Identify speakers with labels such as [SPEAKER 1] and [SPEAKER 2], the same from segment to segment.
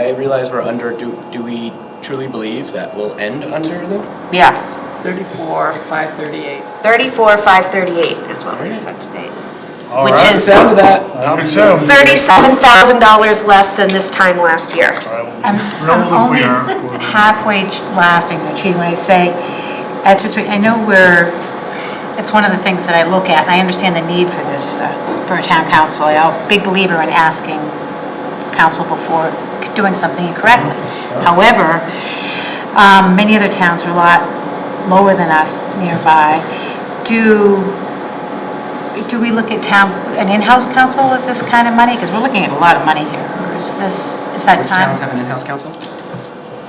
[SPEAKER 1] I realize we're under, do, do we truly believe that we'll end under though?
[SPEAKER 2] Yes.
[SPEAKER 3] 34, 538.
[SPEAKER 2] 34, 538 is what we
[SPEAKER 1] Alright.
[SPEAKER 2] spent today.
[SPEAKER 4] All
[SPEAKER 2] Which
[SPEAKER 4] right.
[SPEAKER 2] is-
[SPEAKER 1] Sound of that?
[SPEAKER 4] I do too. All
[SPEAKER 2] $37,000 less than this time last year.
[SPEAKER 4] right, we'll be
[SPEAKER 5] I'm, I'm
[SPEAKER 4] thrilled if
[SPEAKER 5] only
[SPEAKER 4] we are.
[SPEAKER 5] halfway ch- laughing, Chief, when I say, at this rate, I know we're, it's one of the things that I look at, and I understand the need for this, uh, for a town council. I'm a big believer in asking council before doing something incorrectly.
[SPEAKER 4] Mm-hmm.
[SPEAKER 5] However, um, many other towns are a lot lower than us nearby. Do, do we look at town, an in-house council with this kind of money? Because we're looking at a lot of money here. Is this, is that
[SPEAKER 1] Which
[SPEAKER 5] time?
[SPEAKER 1] towns have an in-house council?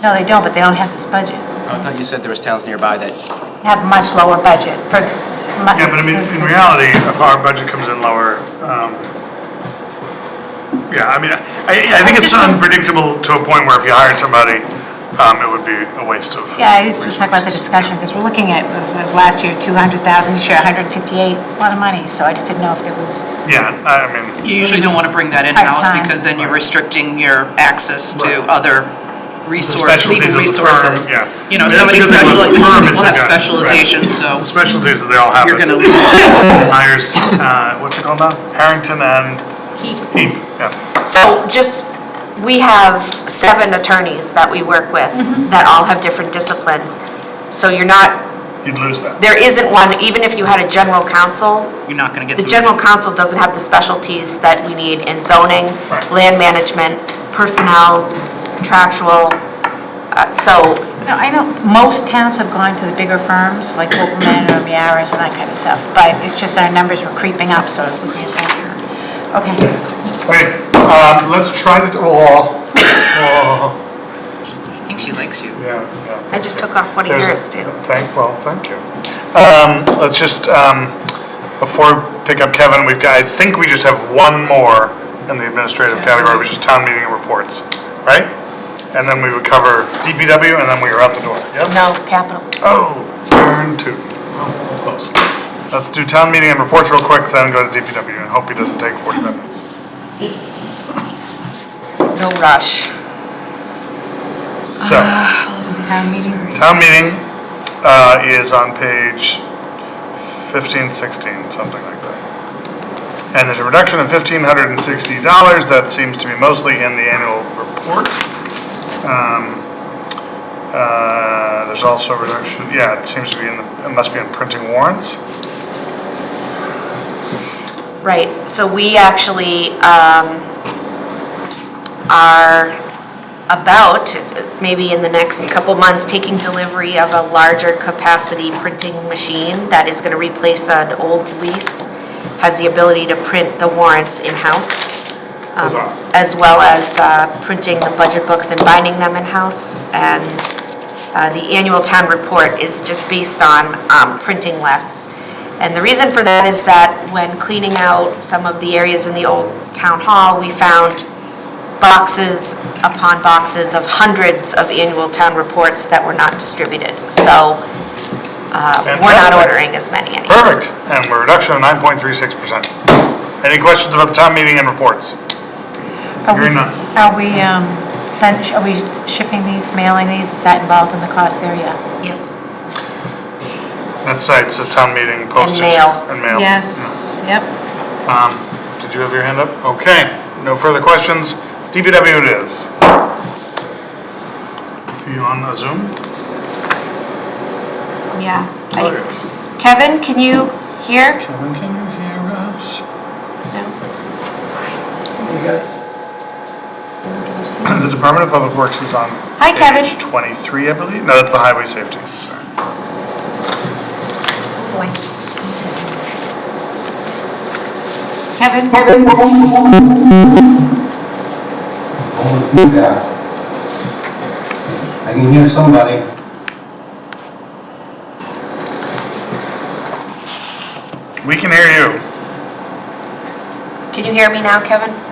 [SPEAKER 5] No, they don't, but they don't have this budget.
[SPEAKER 1] Oh, I thought you said there was towns nearby that,
[SPEAKER 5] Have much lower budget, for ex- mu-
[SPEAKER 4] Yeah, but I mean, in reality, if our budget comes in lower, um, yeah, I mean, I, I think it's unpredictable to a point where if you hired somebody, um, it would be a waste of.
[SPEAKER 5] Yeah, I just was talking about the discussion, because we're looking at, it was last year 200,000, this year 158, a lot of money, so I just didn't know if there was,
[SPEAKER 4] Yeah, I I mean,
[SPEAKER 3] You usually don't want to bring that in-house
[SPEAKER 5] Part-time.
[SPEAKER 3] because then you're restricting your access to
[SPEAKER 4] Right.
[SPEAKER 3] other resources,
[SPEAKER 4] specialties
[SPEAKER 3] legal
[SPEAKER 4] of the firm,
[SPEAKER 3] resources.
[SPEAKER 4] yeah.
[SPEAKER 3] You know,
[SPEAKER 4] That's
[SPEAKER 3] so many
[SPEAKER 4] the good
[SPEAKER 3] special, people
[SPEAKER 4] thing about the firm is they
[SPEAKER 3] have
[SPEAKER 4] got- right.
[SPEAKER 3] specialization, so
[SPEAKER 4] the specialties that they all have.
[SPEAKER 3] you're
[SPEAKER 4] it
[SPEAKER 3] going to,
[SPEAKER 4] Hires, uh, what's it called now? Harrington and Heap, yeah.
[SPEAKER 2] So just, we have seven attorneys that we work with
[SPEAKER 4] Mm-hmm.
[SPEAKER 2] that all have different disciplines. So you're not,
[SPEAKER 4] You'd lose that.
[SPEAKER 2] there isn't one, even if you had a general counsel,
[SPEAKER 3] you're not going to get
[SPEAKER 2] the
[SPEAKER 3] somebody.
[SPEAKER 2] general counsel doesn't have the specialties that we need in zoning,
[SPEAKER 4] Right.
[SPEAKER 2] land management, personnel, contractual. Uh, So
[SPEAKER 5] No, I know, most towns have gone to the bigger firms, like Copeland or Miaris and that kind of stuff, but it's just our numbers were creeping up, so I was looking at that. Okay,
[SPEAKER 4] Okay, um, let's try the, oh, oh,
[SPEAKER 3] I think she likes you.
[SPEAKER 4] yeah, yeah.
[SPEAKER 2] I just took off one of
[SPEAKER 4] There's a-
[SPEAKER 2] yours too.
[SPEAKER 4] Thank, well, thank you. Um, Let's just, um, before we pick up Kevin, we've got, I think we just have one more in the administrative category, which is town meeting reports, right? And then we would cover DPW, and then we are out the door, yes?
[SPEAKER 5] no, capital.
[SPEAKER 4] Oh, turn two. Close. Let's do town meeting and reports real quick, then go to DPW, and hope he doesn't take 45 minutes.
[SPEAKER 2] No rush.
[SPEAKER 4] So,
[SPEAKER 5] Town meeting.
[SPEAKER 4] town meeting uh, is on page 15, 16, something like that. And there's a reduction of fifteen hundred and sixty dollars, that seems to be mostly in the annual report. Um, uh, There's also a reduction, yeah, it seems to be in, the. it must be in printing warrants.
[SPEAKER 2] Right, so we actually um, are about, maybe in the next couple months, taking delivery of a larger capacity printing machine that is going to replace an old lease, has the ability to print the warrants in-house, um,
[SPEAKER 4] Huzzah.
[SPEAKER 2] as well as uh, printing the budget books and binding them in-house. And uh, the annual town report is just based on um, printing less. And the reason for that is that when cleaning out some of the areas in the old town hall, we found boxes upon boxes of hundreds of annual town reports that were not distributed. So uh, we're not
[SPEAKER 4] Fantastic.
[SPEAKER 2] ordering as many anymore.
[SPEAKER 4] Perfect, and we're reduction of 9.36%. Any questions about the town meeting and reports?
[SPEAKER 5] Are we,
[SPEAKER 4] You're not-
[SPEAKER 5] are we, um, sent, are we shipping these, mailing these, is that involved in the cost there yet?
[SPEAKER 2] Yes.
[SPEAKER 4] That site says town meeting postage.
[SPEAKER 2] mail.
[SPEAKER 4] And mail.
[SPEAKER 5] Yes, yep.
[SPEAKER 4] Um, Did you have your hand up? Okay, no further questions. DPW it is. See you on uh, Zoom?
[SPEAKER 2] Yeah. I-
[SPEAKER 4] There it is.
[SPEAKER 2] Kevin, can you hear?
[SPEAKER 4] Oh, Kevin, can you hear us? The Department of Public Works is on.
[SPEAKER 2] Hi, Kevin.
[SPEAKER 4] Page 23, I believe. No, that's the highway safety. Sorry.
[SPEAKER 2] Boy. Kevin?
[SPEAKER 6] Only feedback. I can hear somebody.
[SPEAKER 4] We can hear you.
[SPEAKER 2] Can you hear me now, Kevin?